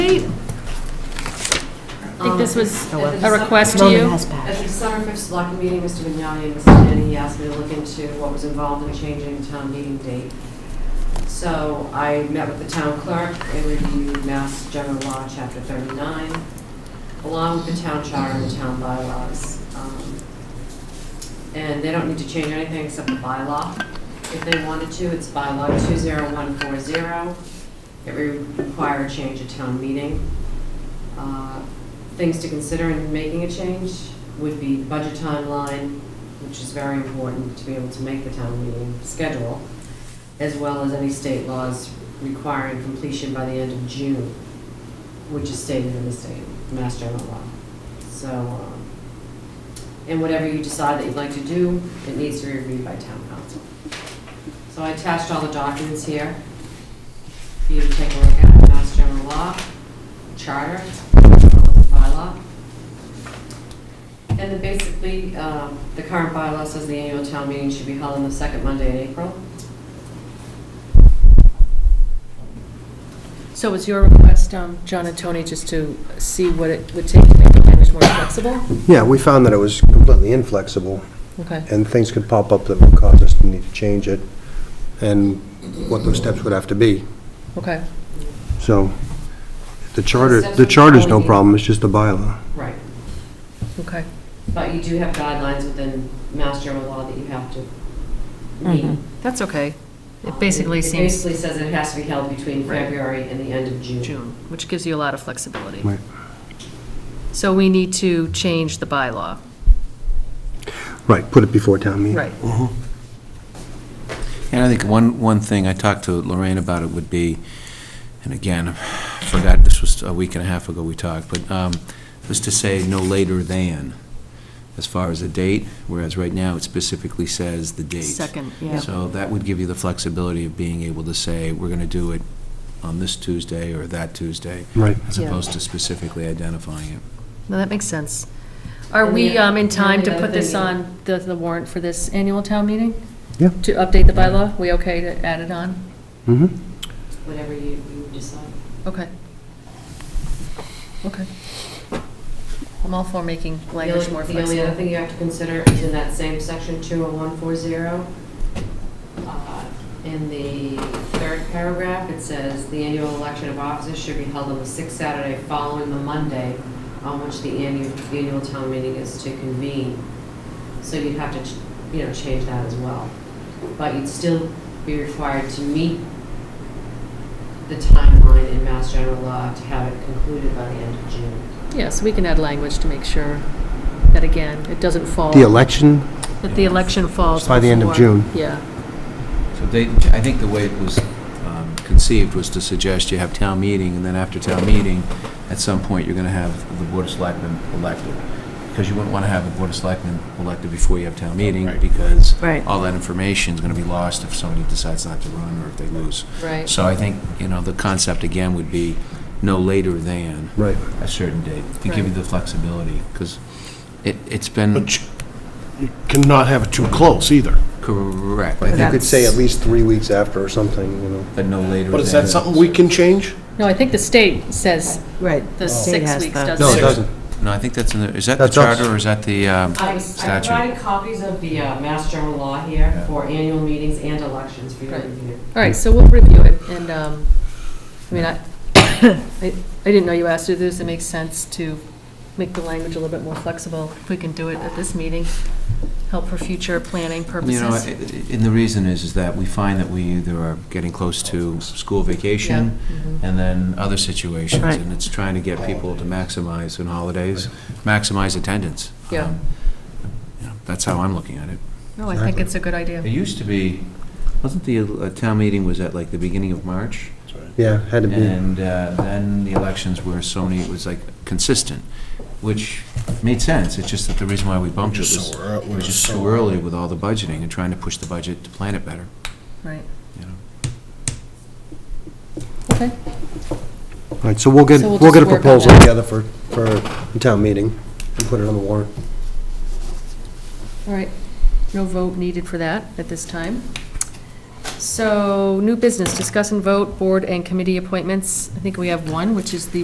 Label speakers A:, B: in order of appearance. A: think this was
B: Oh, well.
A: a request to
B: Roman
A: you.
B: has
C: At the
B: passed.
C: December 5th select meeting, Mr. Vignani and Mr. Denny asked me to look into what was involved in changing the town meeting date. So I met with the town clerk and reviewed Mass General Law, Chapter 39, along with the town charter and town bylaws. Um, And they don't need to change anything except the bylaw. If they wanted to, it's bylaw 20140. It would require a change at town meeting. Uh, Things to consider in making a change would be the budget timeline, which is very important to be able to make the town meeting schedule, as well as any state laws requiring completion by the end of June, which is stated in the state, Mass General Law. So, um, and whatever you decide that you'd like to do, it needs to be reviewed by town council. So I attached all the documents here for you to take a look at, Mass General Law, Charter, bylaw. And then basically, um, the current bylaw says the annual town meeting should be held on the second Monday in April.
A: So was your request, um, John and Tony, just to see what it would take to make the language more flexible?
D: Yeah, we found that it was completely inflexible,
A: Okay.
D: and things could pop up that would cause us to need to change it, and what those steps would have to be.
A: Okay.
D: So, the charter, the charter's no problem, it's just the bylaw.
C: Right.
A: Okay.
C: But you do have guidelines within Mass General Law that you have to meet.
B: Mhm.
A: That's okay.
C: Um, Mm-hmm. It basically says it has to be held between
A: Right.
C: February and the end of June.
A: June, which gives you a lot of flexibility.
D: Right.
A: So we need to change the bylaw.
D: Right, put it before town meeting.
A: Right.
E: And I think one, one thing, I talked to Lorraine about it would be, and again, I forgot, this was a week and a half ago we talked, but um, was to say no later than, as far as the date, whereas right now it specifically says the date.
A: Second, yeah.
E: So that would give you the flexibility of being able to say, we're going to do it on this Tuesday or that Tuesday,
D: Right.
E: as
A: Yeah.
E: opposed to specifically identifying it.
A: No, that makes sense. Are
C: And
A: we
C: the-
A: um, in time
C: and the
A: to
C: other
A: put this
C: thing-
A: on the the warrant for this annual town meeting?
D: Yeah.
A: To update the bylaw? We okay to add it on?
D: Mm-hmm.
C: Whatever you you decide.
A: Okay. Okay. I'm all for making
C: The
A: language
C: only-
A: more
C: The only other
A: flexible.
C: thing you have to consider is in that same section 20140, uh, in the third paragraph, it says, "The annual election of officers should be held on the sixth Saturday following the Monday on which the annual, annual town meeting is to convene." So you'd have to, ch- you know, change that as well. But you'd still be required to meet the timeline in Mass General Law to have it concluded by the end of June.
A: Yes, we can add language to make sure that, again, it doesn't fall,
D: The election,
A: that the election falls
D: By the end of
A: before-
D: June.
A: Yeah.
E: So they, I think the way it was um, conceived was to suggest you have town meeting, and then after town meeting, at some point, you're going to have the Board of Selectmen elected, because you wouldn't want to have the Board of Selectmen elected before you have town meeting, because
A: Right.
E: all that information is going to be lost if somebody decides not to run or if they lose.
A: Right.
E: So I think, you know, the concept again would be no later than
D: right.
E: a certain date, to give you
A: Right.
E: the flexibility, because it, it's been
F: But you- you cannot have it too close either.
E: correct, I
D: You
E: think,
D: could say at least three weeks after or something, you know.
E: but no later than.
F: But is that something we can change?
A: No, I think the state says
B: Right.
A: the
B: state
A: six
B: has
A: weeks
B: the-
A: doesn't
D: No, it doesn't.
E: No, I think that's in the, is that the
D: That's us.
E: charter or is that the um,
C: I I
E: statute?
C: provided copies of the uh, Mass General Law here
E: Yeah.
C: for annual meetings and elections for your
A: Right.
C: review.
A: All right, so we'll review it, and, um, I mean, I, I I didn't know you asked to do this, it makes sense to make the language a little bit more flexible, if we can do it at this meeting, help for future planning
E: You know,
A: purposes.
E: i- i- and the reason is, is that we find that we either are getting close to school vacation and then other situations.
B: Right.
E: And it's trying to get people to maximize in holidays, maximize attendance.
A: Yeah.
E: Um, you know, That's how I'm looking at it.
A: No, I think it's a good idea.
E: It used to be, wasn't the uh, town meeting was at like the beginning of March?
D: Yeah, had to be.
E: And uh, then the elections were so many, it was like consistent, which made sense. It's just that the reason why we bumped it
F: Just
E: was,
F: so ear-
E: it was just so early with all the budgeting and trying to push the budget to plan it better,
A: Right,
E: you know?
A: okay,
D: All right, so we'll get,
A: So we'll
D: we'll get a
A: just work on
D: proposal
A: that.
D: together for, for the town meeting and put it on the warrant.
A: all right. No vote needed for that at this time. So, new business, discuss and vote board and committee appointments. I think we have one, which is the